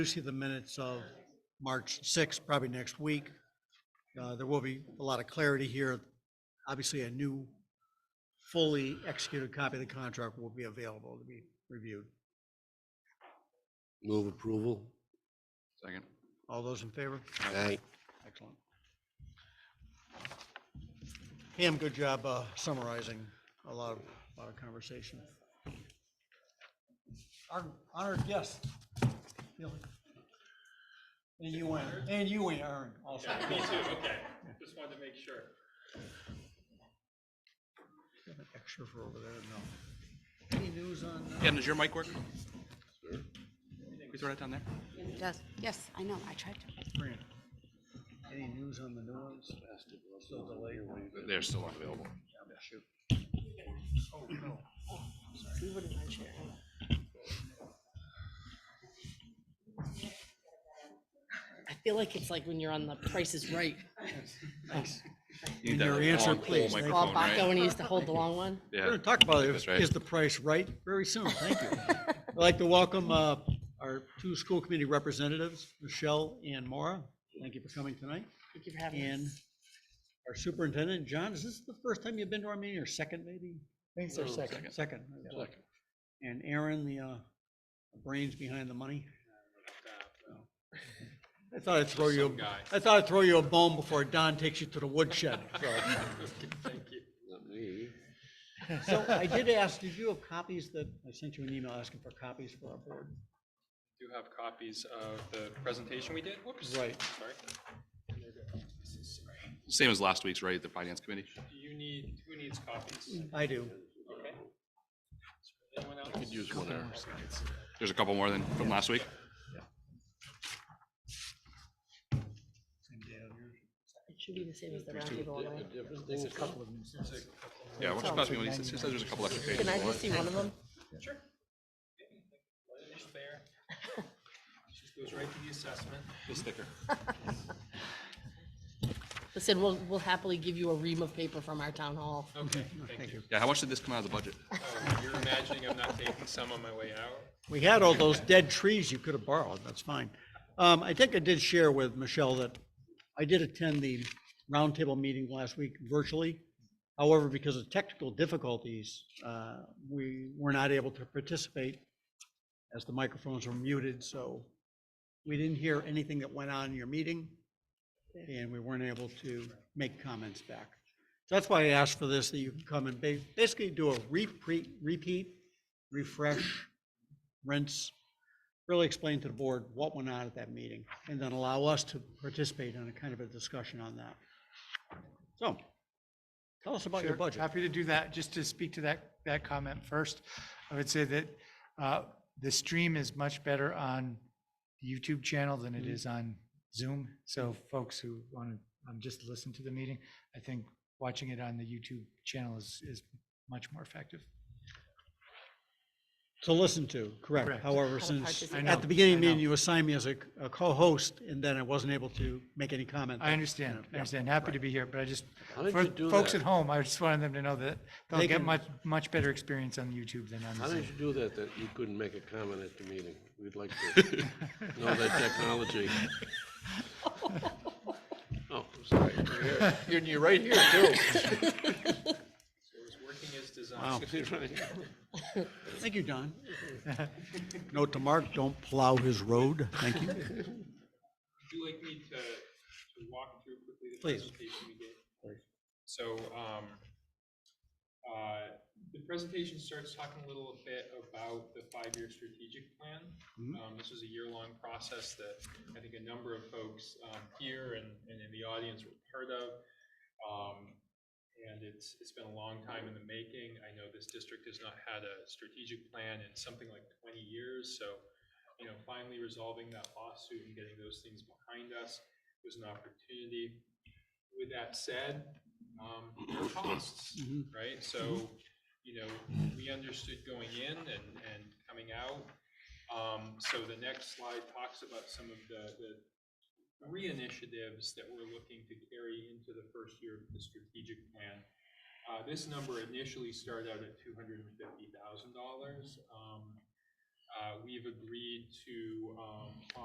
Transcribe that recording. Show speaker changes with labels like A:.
A: do see the minutes of March 6th, probably next week. Uh, There will be a lot of clarity here. Obviously, a new, fully executed copy of the contract will be available to be reviewed.
B: Move approval.
C: Second.
A: All those in favor?
B: Aye.
A: Excellent. Pam, good job uh, summarizing a lot of, a lot of conversation. Our honored guest, Billy. And you, Aaron. and you, Aaron, also.
D: Me too, okay. Just wanted to make sure.
A: Got an extra for over there, no. Any news on, uh,
C: Ken, does your mic work? Can we throw that down there?
E: It does, yes, I know, I tried to.
A: Fran? Any news on the new ones? Still delayed?
C: They're still unavailable.
A: Yeah, shoot.
E: You wouldn't mind sharing. I feel like it's like when you're on the Price is Right,
A: Thanks.
C: You need
A: And
C: that
A: your
C: like,
A: answer,
C: long pole
A: please. Thank you.
C: microphone,
E: Bob Baco,
C: right?
E: when he used to hold the long one.
A: We're
C: Yeah.
A: gonna talk about it.
C: That's
A: Is-
C: right.
A: Is the price right? Very soon. Thank you. I'd like to welcome uh, our two school committee representatives, Michelle and Maura. Thank you for coming tonight.
E: Thank you for having
A: And
E: us.
A: our superintendent, John, is this the first time you've been to our meeting or second maybe?
E: Thanks,
C: our second.
A: Second.
C: Second.
A: And Aaron, the uh, brains behind the money. I thought I'd throw you,
D: Some guy.
A: I thought I'd throw you a bone before Don takes you to the woodshed. so.
D: Thank you.
B: Not me.
A: So I did ask, did you have copies that, I sent you an email asking for copies for our board?
D: Do have copies of the presentation we did. Whoops.
A: Right.
D: Sorry.
C: Same as last week's, right? The finance committee?
D: Do you need, who needs copies?
A: I do.
D: Okay. Anyone else?
B: Use one hour.
C: There's a couple more than from last week.
E: It should be the same as the roundtable one, right?
C: Yeah, why don't you pass me one of these? It says there's a couple extra pages.
E: Can I just see one of them?
D: Sure. Let it just there. Just goes right to the assessment.
C: The sticker.
E: Listen, we'll, we'll happily give you a ream of paper from our town hall.
D: Okay, thank you.
C: Yeah, how much did this come out of the budget?
D: Oh, You're imagining I'm not taking some on my way out?
A: We had all those dead trees you could have borrowed, that's fine. Um, I think I did share with Michelle that I did attend the roundtable meeting last week virtually. However, because of technical difficulties, uh, we were not able to participate as the microphones were muted, so we didn't hear anything that went on in your meeting, and we weren't able to make comments back. So that's why I asked for this, that you can come and ba- basically do a repeat, repeat, refresh, rinse, really explain to the board what went on at that meeting, and then allow us to participate in a kind of a discussion on that. So, tell us about your
F: Sure,
A: budget.
F: Happy to do that. Just to speak to that, that comment first, I would say that uh, the stream is much better on the YouTube channel than
A: Mm-hmm.
F: it is on Zoom. So folks who want to just listen to the meeting, I think watching it on the YouTube channel is, is much more effective.
A: To listen to, correct.
F: Correct.
A: However,
E: to
A: since
E: participate.
F: I
A: at
F: know,
A: the beginning
F: I
A: of the meeting,
F: know.
A: you assigned me as a a co-host, and then I wasn't able to make any comment.
F: I understand, I
A: Yeah,
F: understand. Happy to be here, but I just,
B: How did
F: for
B: you do
F: folks
B: that?
F: at home, I just wanted them to know that
A: They
F: they'll get
A: can-
F: much, much better experience on YouTube than on the
B: How
F: Zoom.
B: did you do that, that you couldn't make a comment at the meeting? We'd like to know that technology. Oh, sorry. You're, you're right here, too.
D: So it was working as designed.
A: Wow.
B: You're right here.
A: Thank you, Don. Note to Mark, don't plow his road. Thank you.
D: Would you like me to, to walk through quickly the
A: Please.
D: presentation we gave? So, um, uh, the presentation starts talking a little bit about the five-year strategic plan.
A: Mhm.
D: Um, this is a year-long process that I think a number of folks, um, here and, and in the audience were part of. Um, and it's, it's been a long time in the making. I know this district has not had a strategic plan in something like twenty years, so, you know, finally resolving that lawsuit and getting those things behind us was an opportunity. With that said, um, there are costs,
A: Mhm.
D: right? So, you know, we understood going in and, and coming out. Um, so the next slide talks about some of the, the three initiatives that we're looking to carry into the first year of the strategic plan. Uh, this number initially started out at two hundred and fifty thousand dollars. Um, uh, we've agreed to, um,